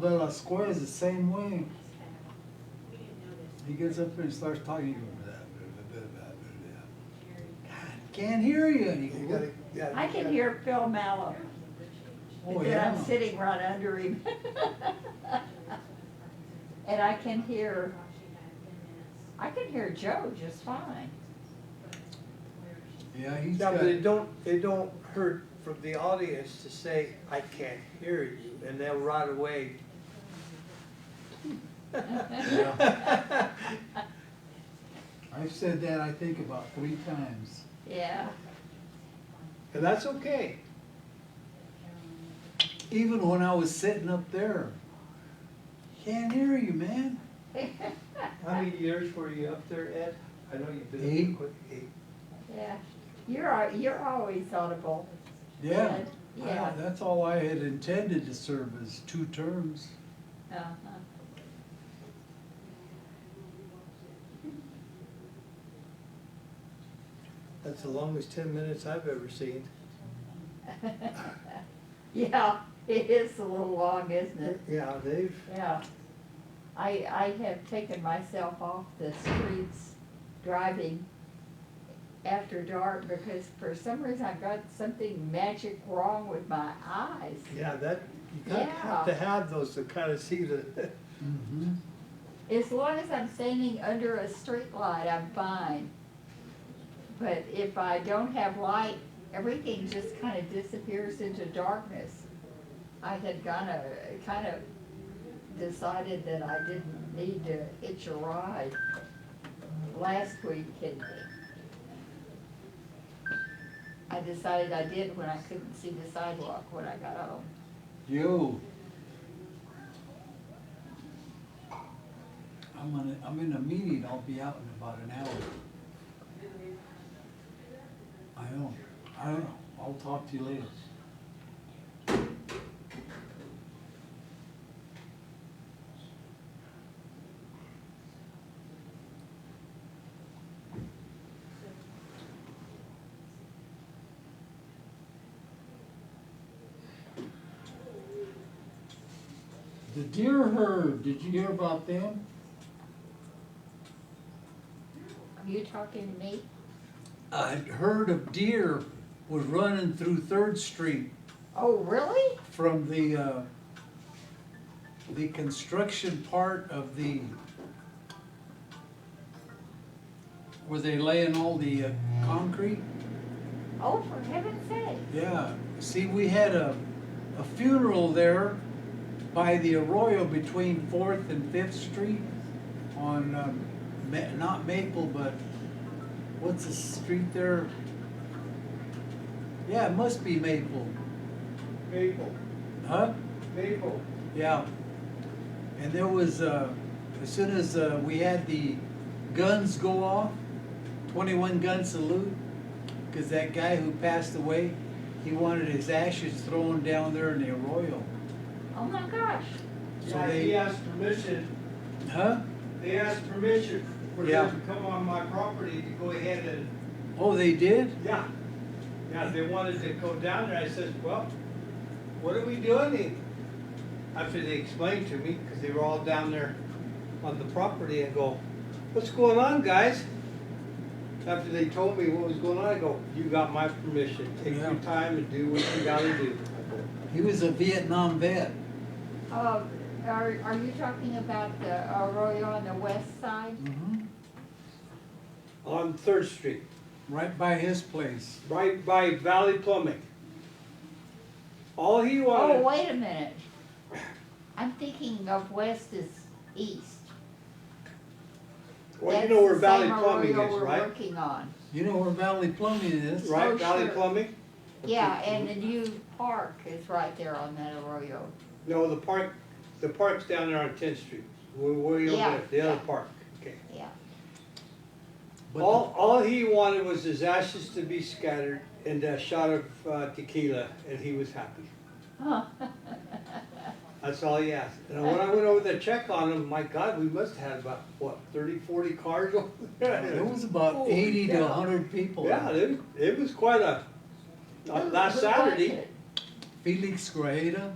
De La Square is the same way. He gets up there and starts talking, you go, blah, blah, blah, blah, blah, blah. God, can't hear you. And you You go, gotta, yeah. I you can gotta- hear Phil Mallow. Oh, But then I'm yeah. sitting right under him. And I can hear, I can hear Joe just fine. Yeah, he's No, got, but it don't, it don't hurt from the audience to say, I can't hear you, and they'll right away. I've said that, I think, about three times. Yeah, And that's okay. Even when I was sitting up there. Can't hear you, man. How many years were you up there, Ed? I know you've been. Eight. Eight. yeah. You're, al- you're always audible. Yeah. Yeah. Wow, That's all I had intended to serve as two terms. Uh-huh. That's the longest ten minutes I've ever seen. Yeah, it is a little long, isn't it? Yeah, they've, Yeah. I, I have taken myself off the streets driving after dark because for some reason I've got something magic wrong with my eyes. yeah, that, you kind of have to Yeah. have those to kind of see the, Mm-hmm. As long as I'm standing under a street light, I'm fine. But if I don't have light, everything just kind of disappears into darkness. I had kind of, kind of decided that I didn't need to hitch a ride last week and I decided I did when I couldn't see the sidewalk when I got home. Yo. I'm on a, I'm in a meeting, I'll be out in about an hour. I know, I don't know, I'll talk to you later. The deer herd, did you hear about them? Are you talking to me? A herd of deer was running through Third Street Oh, really? from the, uh, the construction part of the, where they laying all the uh, concrete. Oh, for heaven's sake. Yeah, see, we had a, a funeral there by the Arroyo between Fourth and Fifth Street on, um, Ma- not Maple, but what's the street there? Yeah, it must be Maple, maple, huh? maple. Yeah. And there was, uh, as soon as, uh, we had the guns go off, twenty-one gun salute, cause that guy who passed away, he wanted his ashes thrown down there in the arroyo. Oh my gosh. So Yeah, they- he asked permission, Huh? they asked permission for Yeah. them to come on my property to go ahead and, Oh, they did? yeah. Yeah, they wanted to go down there, I says, well, what are we doing here? After they explained to me, because they were all down there on the property, I go, what's going on, guys? After they told me what was going on, I go, you got my permission, take your Yeah. time and do what you gotta do. I go, He was a Vietnam vet. Uh, are, are you talking about the Arroyo on the west side? Mm-hmm. On Third Street, Right by his place. right by Valley Plumbing. All he wanted. Oh, wait a minute. I'm thinking of west is east. Well, you That's know where the Valley same Plumbing arroyo is, we're right? working on. You know where Valley Plumbing is? Right, Oh, Valley sure. Plumbing? Yeah, and the new park is right there on that Arroyo. No, the park, the park's down there on Tenth Street, way, way over Yeah, there, the other yeah. park, okay. Yeah, But the- All, all he wanted was his ashes to be scattered and a shot of uh, tequila, and he was happy. Uh, Huh. That's all he asked. And when I went over to check on him, my God, we must have had about, what, 30, 40 cars over There there? was about Holy eighty to cow. hundred people. Yeah, it, it was quite a, Who- last who was Saturday. it? Felix Grajeda,